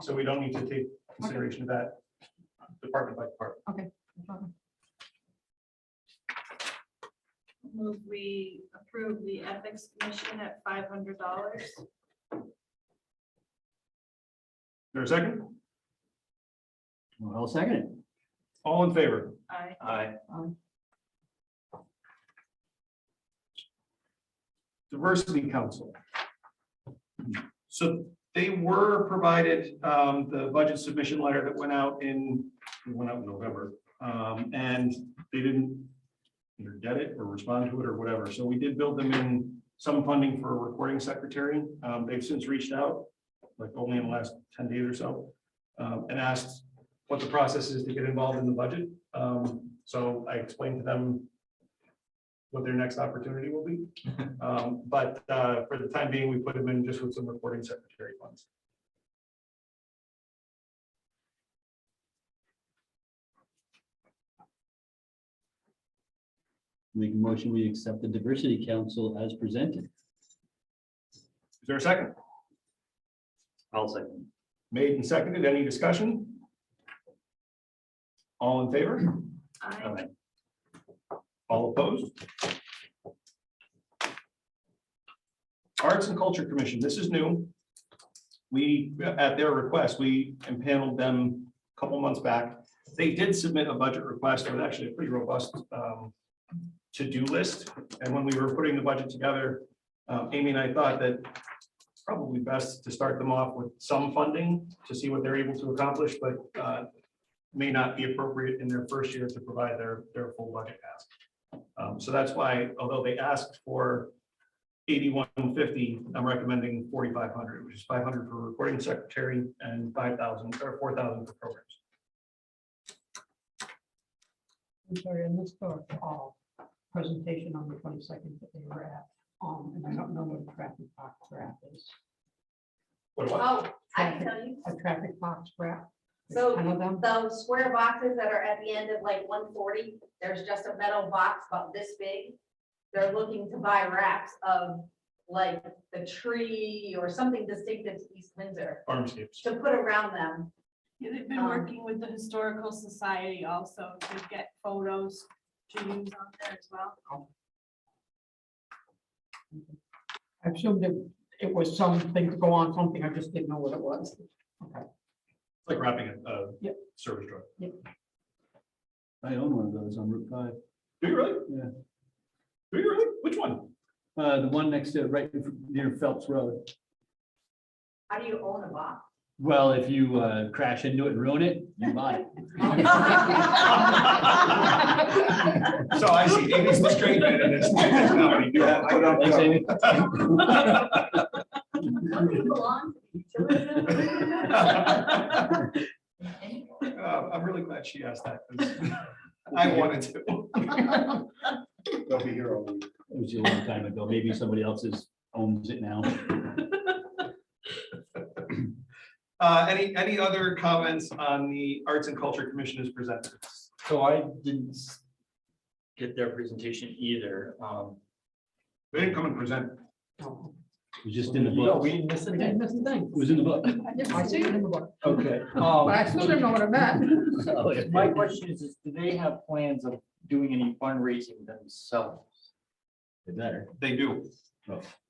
So we don't need to take consideration of that department by department. Move we approve the ethics commission at five hundred dollars. There a second? Well, I'll second it. All in favor? I, Aye. Um, Diversity Council. So they were provided um, the budget submission letter that went out in, it went out in November. um, And they didn't either get it or respond to it or whatever. So we did build them in some funding for a recording secretary. Um, They've since reached out, like only in the last ten days or so, um, and asked what the process is to get involved in the budget. Um, So I explained to them what their next opportunity will be. Um, but, uh, for the time being, we put them in just with some reporting secretary funds. Make a motion, we accept the diversity council as presented. Is there a second? I'll second. Made and seconded, any discussion? All in favor? I, All opposed? Arts and Culture Commission, this is new. We, at their request, we impaneled them a couple months back. They did submit a budget request, it was actually a pretty robust um, to-do list. And when we were putting the budget together, um, Amy and I thought that it's probably best to start them off with some funding to see what they're able to accomplish, but uh, may not be appropriate in their first year to provide their, their full budget ask. Um, so that's why, although they asked for eighty-one fifty, I'm recommending forty-five hundred, which is five hundred for recording secretary and five thousand or four thousand for programs. I'm sorry, I missed the uh, presentation on the twenty-second that they were at, um, and I don't know what a traffic box graph is. What do I- Oh, I can tell you, A traffic box graph? So- I know them, those square boxes that are at the end of like one forty, there's just a metal box about this big. They're looking to buy wraps of like the tree or something distinctive to East Windsor Farmscapes. to put around them. Yeah, they've been Um, working with the historical society also to get photos to use on there as well. I assumed it, it was something to go on something, I just didn't know what it was. It's like wrapping a, a Yep. service drug. I own one of those on Route five. Do you really? Yeah. Do you really? Which one? Uh, the one next to, right in fr- near Phelps Road. How do you own a box? Well, if you, uh, crash into it and ruin it, you buy So I see, Amy's the straight man in this. it. Don't you belong to the utility? Uh, I'm really glad she asked that. 'cause I wanted to. They'll be here all week. It was a long time ago. Maybe somebody else's owns it now. Uh, any, any other comments on the Arts and Culture Commission as presented? So I didn't s- get their presentation either. Um, They didn't come and present. No, It was just in the Yeah, book. we It didn't miss I didn't anything. miss the thing. was in the book. I didn't I see it in the book, Okay. but I um, still didn't know what it meant. Oh, My question is, is do they have plans of doing any fundraising themselves? It Better. They do.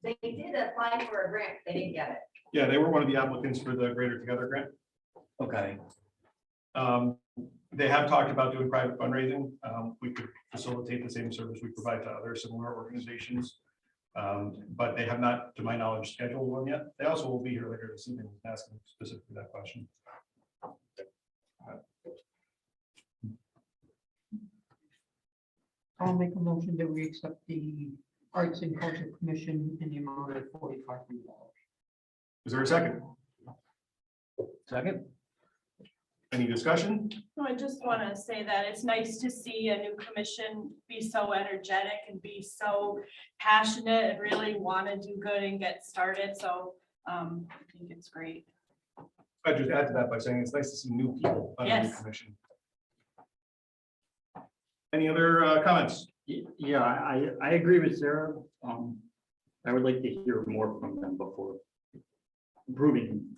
They did apply for a grant, they didn't get it. Yeah, they were one of the applicants for the Greater Together Grant. Okay, Um, they have talked about doing private fundraising. Um, we could facilitate the same service we provide to other similar organizations. Um, but they have not, to my knowledge, scheduled one yet. They also will be here later this evening asking specifically that question. I'll make a motion that we accept the Arts and Culture Commission in the amount of forty-five hundred dollars. Is there a second? Second? Any discussion? So I just want to say that it's nice to see a new commission be so energetic and be so passionate and really want to do good and get started. So um, I think it's great. I'd just add to that by saying it's nice to see new people on the new Yes. commission. Any other uh, comments? Y- yeah, I, I agree with Sarah. Um, I would like to hear more from them before approving